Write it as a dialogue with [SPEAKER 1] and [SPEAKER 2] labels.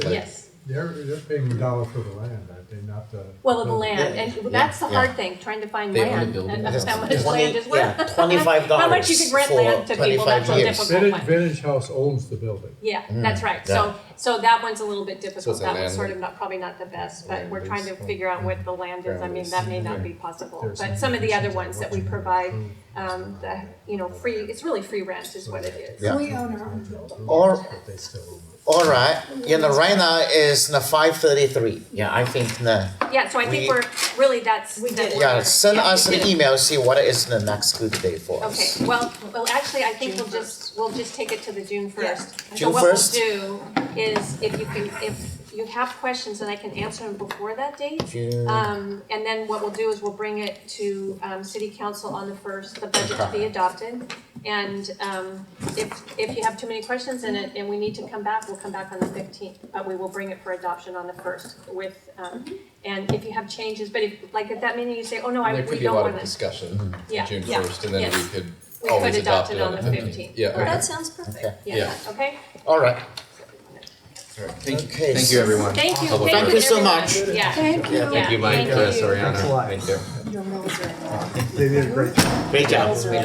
[SPEAKER 1] Yes.
[SPEAKER 2] They're, they're paying a dollar for the land, aren't they, not the.
[SPEAKER 1] Well, the land, and that's the hard thing, trying to find
[SPEAKER 3] They own the
[SPEAKER 1] land,
[SPEAKER 3] building.
[SPEAKER 1] and that's how much
[SPEAKER 3] Twenty-
[SPEAKER 1] land is worth.
[SPEAKER 3] yeah, $25
[SPEAKER 1] How much you could rent
[SPEAKER 3] for
[SPEAKER 1] land to people, that's
[SPEAKER 3] 25
[SPEAKER 1] a
[SPEAKER 3] years.
[SPEAKER 1] difficult
[SPEAKER 3] Mm.
[SPEAKER 2] Vintage,
[SPEAKER 1] one.
[SPEAKER 2] Vintage House owns the building.
[SPEAKER 1] Yeah, that's right, so, so that one's a little bit difficult,
[SPEAKER 3] it's a
[SPEAKER 1] that one's
[SPEAKER 3] land-
[SPEAKER 1] sort of not, probably not the best, but
[SPEAKER 3] land
[SPEAKER 1] we're trying to
[SPEAKER 3] lease,
[SPEAKER 1] figure out what the land is, I
[SPEAKER 3] ground
[SPEAKER 1] mean,
[SPEAKER 3] lease.
[SPEAKER 1] that may not
[SPEAKER 2] Okay.
[SPEAKER 1] be possible.
[SPEAKER 2] There's
[SPEAKER 1] But some of the other ones that we provide,
[SPEAKER 2] conditions on what's
[SPEAKER 1] um,
[SPEAKER 2] in
[SPEAKER 1] the,
[SPEAKER 2] there.
[SPEAKER 1] you know, free, it's really free rent is what it is.
[SPEAKER 3] Yeah.
[SPEAKER 4] We own our own building.
[SPEAKER 3] Or-
[SPEAKER 2] But they still own it.
[SPEAKER 3] All right, you know, right now is the five thirty-three. Yeah, I think the,
[SPEAKER 1] Yeah, so I think
[SPEAKER 3] We-
[SPEAKER 1] we're, really, that's. We did
[SPEAKER 3] yeah, send us an email, see what is the next good day for us.
[SPEAKER 1] Okay, well, well, actually, I think
[SPEAKER 4] June
[SPEAKER 1] we'll just, we'll just take it to the June first.
[SPEAKER 3] June first?
[SPEAKER 1] So what we'll do is if you can, if you have questions and I can answer them before that date.
[SPEAKER 3] June-
[SPEAKER 1] Um, and then what we'll do is we'll bring it to, um, city council on the first, the budget to be
[SPEAKER 3] Okay.
[SPEAKER 1] adopted. And, um, if, if you have too many questions in it and we need to come back, we'll come back on the fifteenth, but we will bring it for adoption on the first with, um, and if you have changes, but if, like, at that meeting, you say, oh, no, I,
[SPEAKER 5] Mm-hmm. There
[SPEAKER 1] we
[SPEAKER 5] could be a
[SPEAKER 1] don't
[SPEAKER 5] lot
[SPEAKER 1] want
[SPEAKER 5] of
[SPEAKER 1] this.
[SPEAKER 5] discussion
[SPEAKER 1] Yeah,
[SPEAKER 5] on June
[SPEAKER 4] yeah,
[SPEAKER 5] first, and then we
[SPEAKER 1] yes.
[SPEAKER 5] could
[SPEAKER 1] We
[SPEAKER 5] always
[SPEAKER 1] could adopt it on the
[SPEAKER 5] fifteenth.
[SPEAKER 1] 15th.
[SPEAKER 5] Yeah,
[SPEAKER 4] That sounds perfect.
[SPEAKER 3] Okay,
[SPEAKER 1] Yeah, okay?
[SPEAKER 3] all right.
[SPEAKER 6] Thank you,
[SPEAKER 3] Okay,
[SPEAKER 6] thank you,
[SPEAKER 3] so-
[SPEAKER 6] everyone.
[SPEAKER 1] Thank you,
[SPEAKER 5] Public
[SPEAKER 1] thank
[SPEAKER 3] record.
[SPEAKER 1] you
[SPEAKER 3] Thank you so
[SPEAKER 1] everyone.
[SPEAKER 3] much.
[SPEAKER 1] Yeah.
[SPEAKER 4] Thank you.
[SPEAKER 3] Yeah,
[SPEAKER 5] Thank you, Mike,
[SPEAKER 1] Thank
[SPEAKER 5] uh,
[SPEAKER 1] you.
[SPEAKER 5] Soriano,
[SPEAKER 6] Thanks a lot.
[SPEAKER 5] thank you.
[SPEAKER 4] Your roles are-
[SPEAKER 2] They did a great job.
[SPEAKER 3] Great job.